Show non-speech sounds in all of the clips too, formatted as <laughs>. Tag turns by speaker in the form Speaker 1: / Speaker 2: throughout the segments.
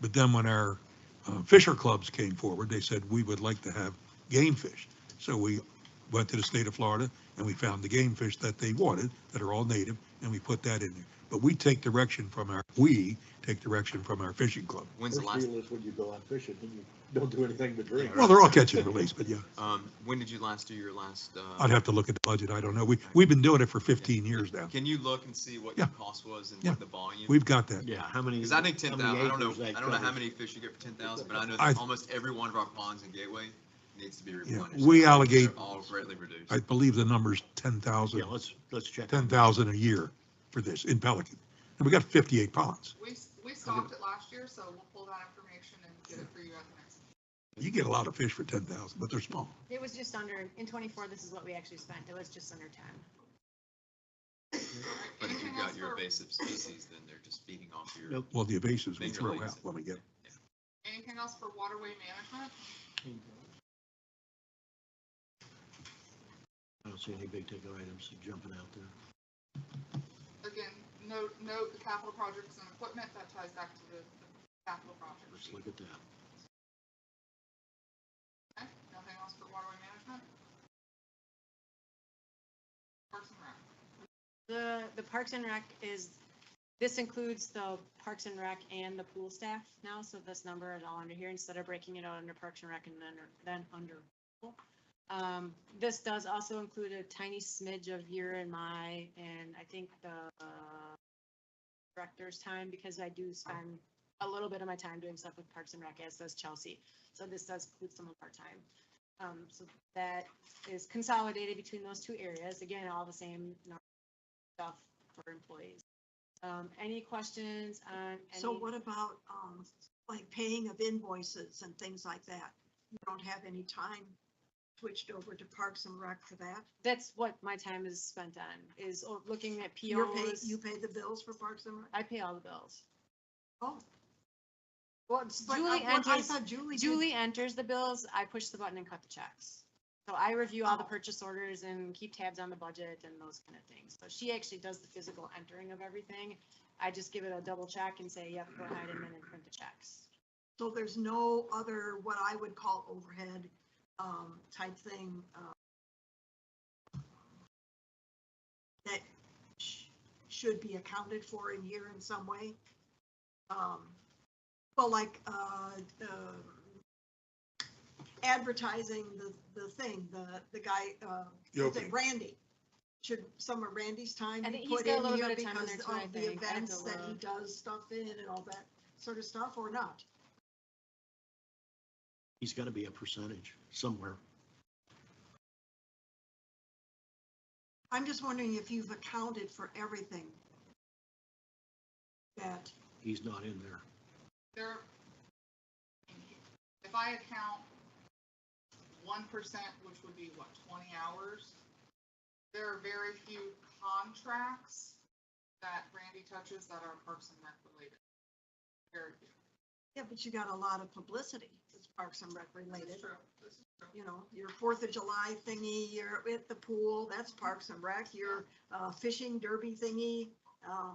Speaker 1: But then when our uh, fisher clubs came forward, they said, we would like to have game fish. So we went to the state of Florida and we found the game fish that they wanted, that are all native, and we put that in there. But we take direction from our, we take direction from our fishing club.
Speaker 2: When's the
Speaker 3: First
Speaker 2: last,
Speaker 3: rule is when you go out fishing, you don't do anything but drink.
Speaker 1: Well, they're all catch and release, but yeah,
Speaker 2: um, when did you last do your last,
Speaker 1: I'd
Speaker 2: uh,
Speaker 1: have to look at the budget. I don't know. We, we've been doing it for 15 years now.
Speaker 2: can you look and see what your
Speaker 1: Yeah.
Speaker 2: cost was and
Speaker 1: Yeah.
Speaker 2: what the volume?
Speaker 1: We've got that.
Speaker 4: Yeah, how many?
Speaker 2: Because I think ten
Speaker 4: how
Speaker 2: thousand,
Speaker 4: many
Speaker 2: I don't know,
Speaker 4: acres that
Speaker 2: I don't know how
Speaker 4: covers.
Speaker 2: many fish you get for ten thousand, but I know
Speaker 1: I-
Speaker 2: that almost every one of our ponds in Gateway needs to be replenished.
Speaker 1: we
Speaker 2: They're
Speaker 1: allocate-
Speaker 2: All greatly reduced.
Speaker 1: I believe the number's 10,000,
Speaker 4: Yeah, let's, let's check.
Speaker 1: 10,000 a year for this in Pelican. And we got 58 ponds.
Speaker 5: We, s- we stopped it last year, so we'll pull that information and get it for you at the next.
Speaker 1: You get a lot of fish for 10,000, but they're small.
Speaker 6: It was just under, in twenty-four, this is what we actually spent. It was just under ten.
Speaker 5: All right,
Speaker 2: But if
Speaker 5: anything
Speaker 2: you've
Speaker 5: else
Speaker 2: got your
Speaker 5: for-
Speaker 2: invasive species, then they're just feeding off your.
Speaker 4: Nope.
Speaker 1: Well, the evasives we
Speaker 2: Major
Speaker 1: throw
Speaker 2: leagues.
Speaker 1: out when we get, 'em.
Speaker 5: Anything else for waterway management?
Speaker 4: I don't see any big ticket items jumping out there.
Speaker 5: Again, note, note the capital projects and equipment, that ties back to the the capital project
Speaker 4: Let's
Speaker 5: sheet.
Speaker 4: look at that.
Speaker 5: Okay, nothing else for waterway management? Parks and Rec.
Speaker 6: The, the Parks and Rec is, this includes the Parks and Rec and the pool staff now, so this number is all under here instead of breaking it out under Parks and Rec and then, then under. pool. Um, this does also include a tiny smidge of year in my, and I think the uh, director's time, because I do spend a little bit of my time doing stuff with Parks and Rec, as does Chelsea. So this does include some of our time. Um, so that is consolidated between those two areas. Again, all the same number stuff for employees. Um, any questions on any?
Speaker 7: So what about, um, like paying of invoices and things like that? You don't have any time switched over to Parks and Rec for that?
Speaker 6: That's what my time is spent on, is o- looking at
Speaker 7: You're pay,
Speaker 6: POs.
Speaker 7: you pay the bills for Parks and Rec?
Speaker 6: I pay all the bills.
Speaker 7: Oh,
Speaker 6: Well, it's
Speaker 7: but I-
Speaker 6: Julie
Speaker 7: what- I
Speaker 6: enters,
Speaker 7: thought Julie did-
Speaker 6: Julie enters the bills, I push the button and cut the checks. So I review all the
Speaker 7: Oh.
Speaker 6: purchase orders and keep tabs on the budget and those kind of things. So she actually does the physical entering of everything. I just give it a double check and say, yep, go ahead and then I print the checks.
Speaker 7: So there's no other, what I would call overhead, um, type thing, uh, that sh- should be accounted for in here in some way? Um, well, like, uh, uh, advertising the, the thing, the, the guy, uh,
Speaker 1: The
Speaker 7: is it
Speaker 1: opening.
Speaker 7: Randy? Should some of Randy's time
Speaker 6: I
Speaker 7: be
Speaker 6: think he's
Speaker 7: put
Speaker 6: got a
Speaker 7: in
Speaker 6: little
Speaker 7: here
Speaker 6: bit of time in there
Speaker 7: because
Speaker 6: too, I
Speaker 7: of the
Speaker 6: think. I have
Speaker 7: events
Speaker 6: to
Speaker 7: that he
Speaker 6: look.
Speaker 7: does stuff in and all that sort of stuff, or not?
Speaker 4: He's got to be a percentage somewhere.
Speaker 7: I'm just wondering if you've accounted for everything that,
Speaker 4: He's not in there.
Speaker 5: There, if I account one percent, which would be what, twenty hours? There are very few contracts that Randy touches that are Parks and Rec related. Very few.
Speaker 7: yeah, but you got a lot of publicity that's Parks and Rec
Speaker 5: This
Speaker 7: related.
Speaker 5: is true. This is true.
Speaker 7: You know, your Fourth of July thingy, your at the pool, that's Parks and Rec, your uh, fishing derby thingy. uh,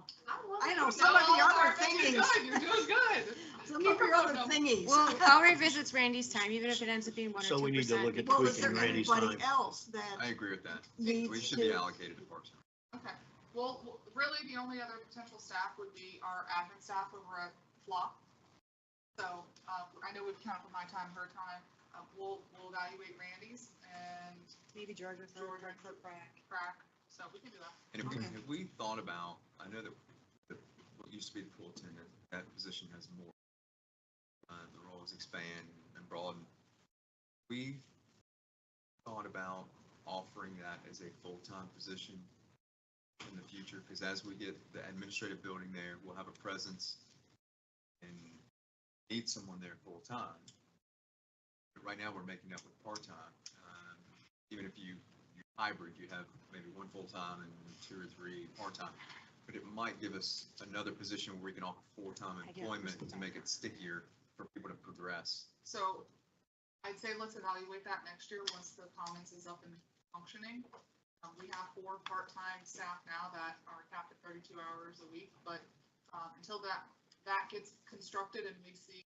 Speaker 7: I know some of the other
Speaker 5: You're
Speaker 7: things,
Speaker 5: good, <laughs> you're doing good.
Speaker 7: some of your other thingies.
Speaker 6: Well,
Speaker 7: <laughs>
Speaker 6: I'll revisit Randy's time, even if it ends up being one or two
Speaker 4: So we need to look at
Speaker 6: percent.
Speaker 7: Well, is
Speaker 4: tweaking
Speaker 7: there
Speaker 4: Randy's
Speaker 7: anybody
Speaker 4: time.
Speaker 7: else
Speaker 2: I
Speaker 7: that
Speaker 2: agree with that. We
Speaker 7: needs
Speaker 2: should be
Speaker 7: to?
Speaker 2: allocated to Parks and
Speaker 5: Okay, well, w- really, the only other potential staff would be our admin staff over at Flop. So, uh, I know we've counted for my time, her time, uh, we'll, we'll evaluate Randy's and
Speaker 6: Maybe George with
Speaker 5: George
Speaker 6: George
Speaker 5: and
Speaker 6: for crack.
Speaker 5: crack, so we can do that.
Speaker 2: And if we,
Speaker 7: Okay.
Speaker 2: if we thought about, I know that the- what used to be the pool attendant, that position has more. Uh, the roles expand and broaden. We thought about offering that as a full-time position in the future, because as we get the administrative building there, we'll have a presence and need someone there full-time. But right now, we're making up with part-time. Um, Even if you you're hybrid, you have maybe one full-time and two or three part-time. But it might give us another position where we can offer full-time
Speaker 6: I get it.
Speaker 2: employment to make it stickier for people to progress.
Speaker 5: So, I'd say let's evaluate that next year, once the commons is up and functioning. Um, we have four part-time staff now that are capped at thirty-two hours a week, but, um, until that that gets constructed and we see